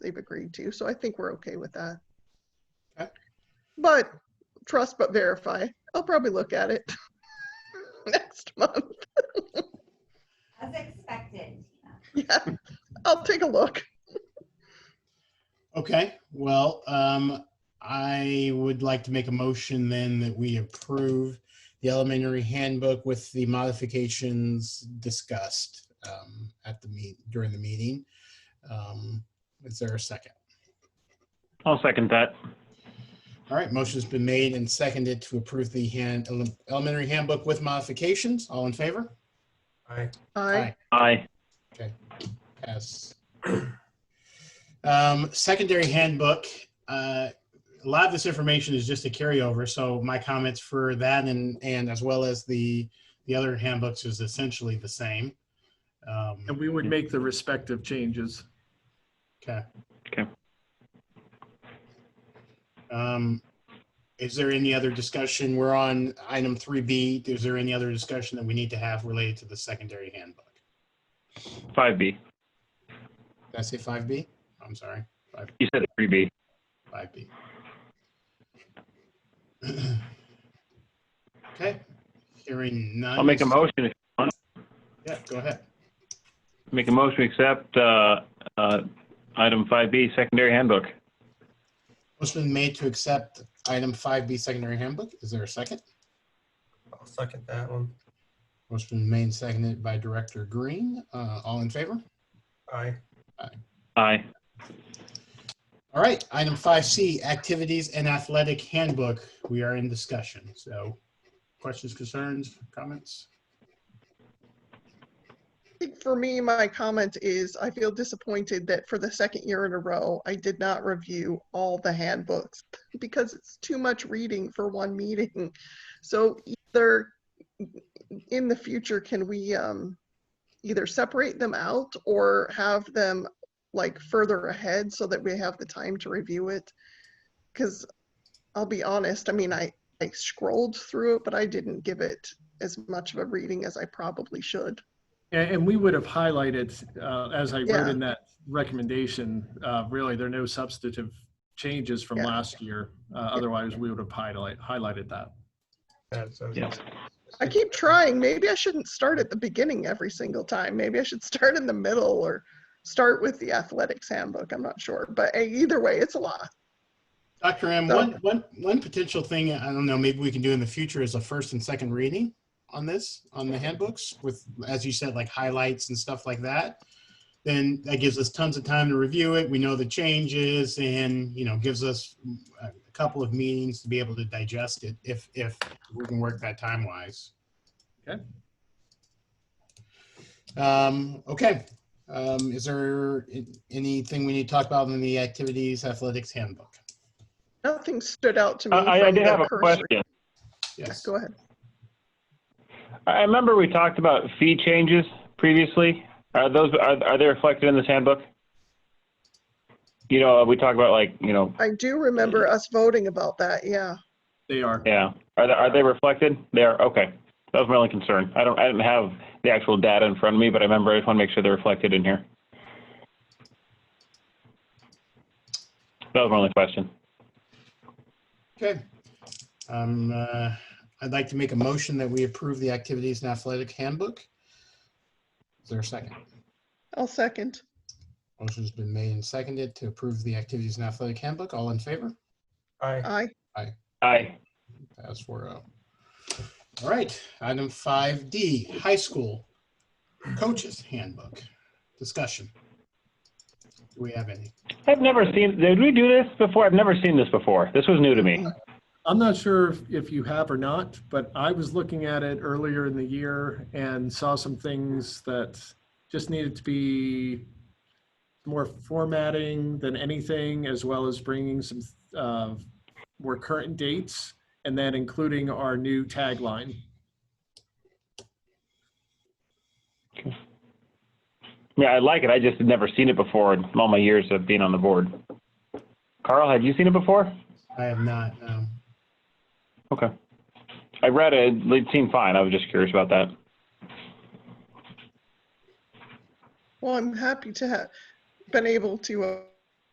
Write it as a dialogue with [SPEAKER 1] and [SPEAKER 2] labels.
[SPEAKER 1] they've agreed to, so I think we're okay with that.
[SPEAKER 2] Okay.
[SPEAKER 1] But trust but verify. I'll probably look at it next month.
[SPEAKER 3] As expected, Tina.
[SPEAKER 1] Yeah, I'll take a look.
[SPEAKER 2] Okay, well, um, I would like to make a motion then that we approve the elementary handbook with the modifications discussed, um, at the meet, during the meeting. Um, is there a second?
[SPEAKER 4] I'll second that.
[SPEAKER 2] All right, motion's been made and seconded to approve the hand, ele- elementary handbook with modifications. All in favor?
[SPEAKER 5] Aye.
[SPEAKER 1] I,
[SPEAKER 4] Aye.
[SPEAKER 2] Yes. Um, secondary handbook, uh, a lot of this information is just a carryover, so my comments for that and, and as well as the, the other handbooks is essentially the same. Um,
[SPEAKER 5] And we would make the respective changes.
[SPEAKER 2] Okay.
[SPEAKER 4] Okay.
[SPEAKER 2] Um, is there any other discussion? We're on item three B. Is there any other discussion that we need to have related to the secondary handbook?
[SPEAKER 4] Five B.
[SPEAKER 2] Did I say five B? I'm sorry, five,
[SPEAKER 4] You said three B.
[SPEAKER 2] five B. Okay, hearing none.
[SPEAKER 4] I'll make a motion.
[SPEAKER 2] Yeah, go ahead.
[SPEAKER 4] Make a motion to accept uh, uh, item five B, secondary handbook.
[SPEAKER 2] Motion been made to accept item five B secondary handbook. Is there a second?
[SPEAKER 5] I'll second that one.
[SPEAKER 2] Motion been made and seconded by Director Green. Uh, all in favor?
[SPEAKER 5] Aye.
[SPEAKER 4] Aye.
[SPEAKER 2] All right, item five C, activities and athletic handbook. We are in discussion. So questions, concerns, comments?
[SPEAKER 1] think for me, my comment is I feel disappointed that for the second year in a row, I did not review all the handbooks because it's too much reading for one meeting. So either in the future, can we um, either separate them out or have them like further ahead so that we have the time to review it? Because I'll be honest, I mean, I, I scrolled through it, but I didn't give it as much of a reading as I probably should.
[SPEAKER 6] And, and we would have highlighted, uh, as I
[SPEAKER 1] Yeah.
[SPEAKER 6] wrote in that recommendation, uh, really, there are no substantive changes from
[SPEAKER 1] Yeah.
[SPEAKER 6] last year. Uh, otherwise, we would have highlight, highlighted that.
[SPEAKER 5] That's okay.
[SPEAKER 4] Yeah.
[SPEAKER 1] I keep trying. Maybe I shouldn't start at the beginning every single time. Maybe I should start in the middle or start with the athletics handbook. I'm not sure, but eh, either way, it's a lot.
[SPEAKER 2] Dr. M, one, one, one potential thing, I don't know, maybe we can do in the future is a first and second reading on this, on the handbooks with, as you said, like highlights and stuff like that. Then that gives us tons of time to review it. We know the changes and, you know, gives us a couple of meetings to be able to digest it if, if we can work that time wise.
[SPEAKER 6] Okay.
[SPEAKER 2] Um, okay. Um, is there anything we need to talk about in the activities athletics handbook?
[SPEAKER 1] Nothing stood out to me.
[SPEAKER 4] I, I- I
[SPEAKER 1] from
[SPEAKER 4] did
[SPEAKER 1] the
[SPEAKER 4] have a
[SPEAKER 1] cursory-
[SPEAKER 4] question.
[SPEAKER 1] Yeah,
[SPEAKER 2] Yes.
[SPEAKER 1] Go ahead.
[SPEAKER 4] I remember we talked about fee changes previously. Are those, are, are they reflected in this handbook? You know, we talk about like, you know,
[SPEAKER 1] I do remember
[SPEAKER 4] Mm-hmm.
[SPEAKER 1] us voting about that. Yeah.
[SPEAKER 6] They are.
[SPEAKER 4] yeah. Are they, are they reflected? They are, okay. That was my only concern. I don't, I didn't have the actual data in front of me, but I remember I just want to make sure they're reflected in here. That was my only question.
[SPEAKER 2] Okay. Um, uh, I'd like to make a motion that we approve the activities and athletic handbook. Is there a second?
[SPEAKER 1] I'll second.
[SPEAKER 2] Motion's been made and seconded to approve the activities and athletic handbook. All in favor?
[SPEAKER 5] Aye.
[SPEAKER 1] I
[SPEAKER 4] Aye.
[SPEAKER 2] Pass four oh. All right, item five D, high school coaches handbook discussion. Do we have any?
[SPEAKER 4] I've never seen, did we do this before? I've never seen this before. This was new to me.
[SPEAKER 6] I'm not sure if- if you have or not, but I was looking at it earlier in the year and saw some things that just needed to be more formatting than anything, as well as bringing some uh, more current dates and then including our new tagline.
[SPEAKER 4] Yeah, I like it. I just had never seen it before in all my years of being on the board. Carl, had you seen it before?
[SPEAKER 2] I have not, um, no.
[SPEAKER 4] Okay. I read it. It seemed fine. I was just curious about that.
[SPEAKER 1] Well, I'm happy to have been able to uh,